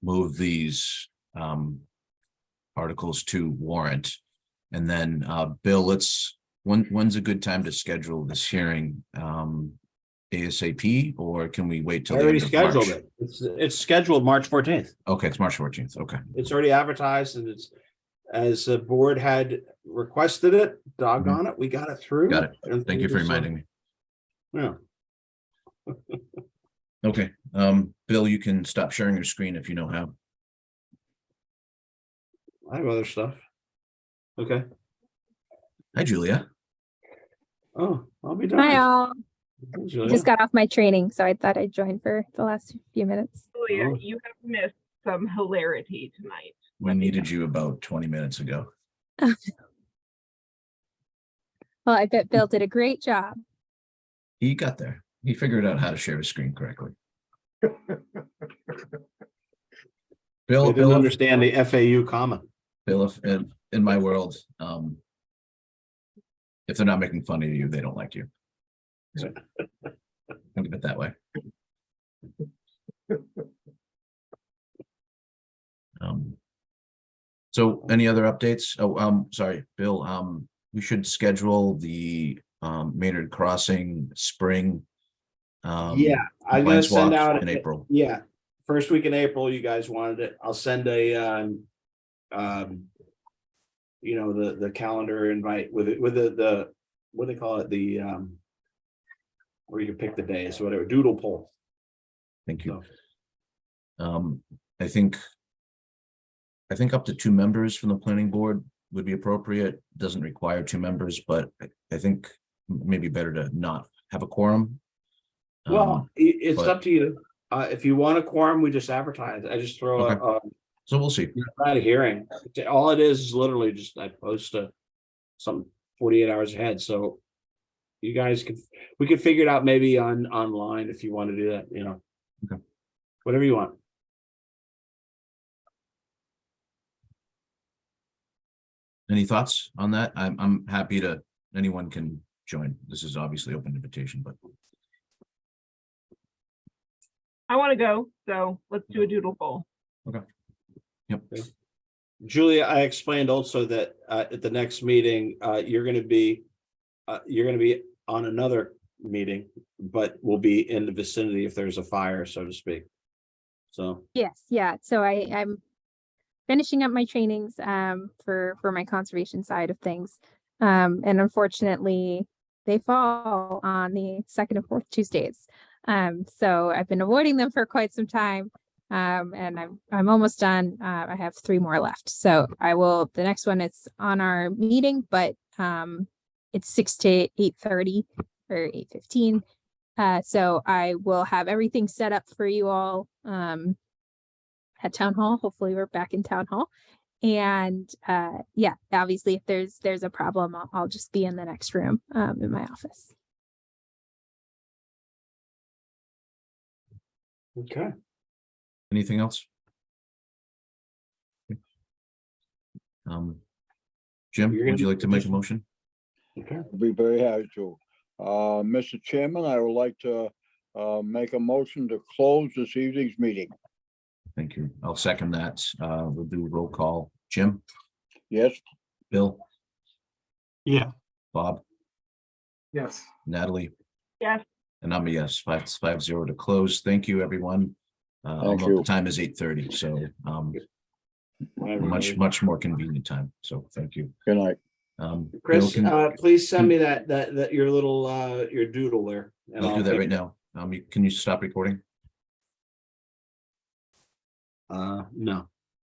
move these um articles to warrant. And then, uh, Bill, let's, when, when's a good time to schedule this hearing? Um, ASAP, or can we wait I till? the already end of March? scheduled it. It's, it's scheduled March fourteenth. Okay, it's March fourteenth. Okay, It's already advertised and it's, as the board had requested it, doggone it, we got it through. Got it. I don't thank you think for there's some- reminding me. Yeah, Okay, um, Bill, you can stop sharing your screen if you know how. I have other stuff. Okay, Hi, Julia. oh, I'll be done. Hi all. Just Julia. got off my training, so I thought I'd join for the last few minutes. Oh. Julia, you have missed some hilarity tonight. We needed you about twenty minutes ago. Well, I bet Bill did a great job. He got there. He figured out how to share his screen correctly. They Bill, didn't Bill, understand the FAU comment. Bill, if- in, in my world, um, if they're not making fun of you, they don't like you. So, Think of it that way. Um, so any other updates? Oh, um, sorry, Bill, um, we should schedule the, um, Maynard Crossing Spring. um, Yeah, I'm gonna compliance send walk out. In April. Yeah, first week in April, you guys wanted it. I'll send a, um, um, you know, the, the calendar invite with it, with the, the, what do they call it? The, um, where you can pick the days, whatever, doodle poll. Thank you. So- Um, I think. I think up to two members from the planning board would be appropriate, doesn't require two members, but I, I think m- maybe better to not have a quorum. Um, Well, i- it's but- up to you. Uh, if you want a quorum, we just advertise. I just throw a, a, so we'll see. not a hearing. All it is, is literally just I post a, some forty-eight hours ahead, so. You guys could, we could figure it out maybe on, online if you want to do that, you know. Okay. Whatever you want. Any thoughts on that? I'm, I'm happy to, anyone can join. This is obviously open invitation, but I want to go, so let's do a doodle poll. yep. Julia, I explained also that, uh, at the next meeting, uh, you're gonna be. Uh, you're gonna be on another meeting, but will be in the vicinity if there's a fire, so to speak. So, Yes, yeah. So I, I'm finishing up my trainings um for for my conservation side of things. Um, and unfortunately, they fall on the second and fourth Tuesdays. Um, so I've been avoiding them for quite some time. Um, and I'm I'm almost done. Uh, I have three more left. So I will. The next one is on our meeting, but um, it's six to eight thirty or eight fifteen. Uh, so I will have everything set up for you all. Um, at town hall. Hopefully, we're back in town hall. And uh, yeah, obviously, if there's there's a problem, I'll, I'll just be in the next room um, in my office. okay. Anything else? Um, Jim, You're would gonna- you like to make a motion? Okay. I'll Be very happy to. Uh, Mr. Chairman, I would like to, uh, make a motion to close this evening's meeting. Thank you. I'll second that. Uh, we'll do roll call. Jim, Yes, Bill, Yeah. Bob, Yes. Natalie. Yes. And I'm a yes, five, five zero to close. Thank you, everyone. Uh, Thank although the you. time is eight thirty, so, um, much, much more convenient time. So thank you. good night. Um, Bill Chris, can- uh, please send me that, that, that, your little, uh, your doodle there. and I'll do that right now. Um, you- can you stop recording? Uh, no.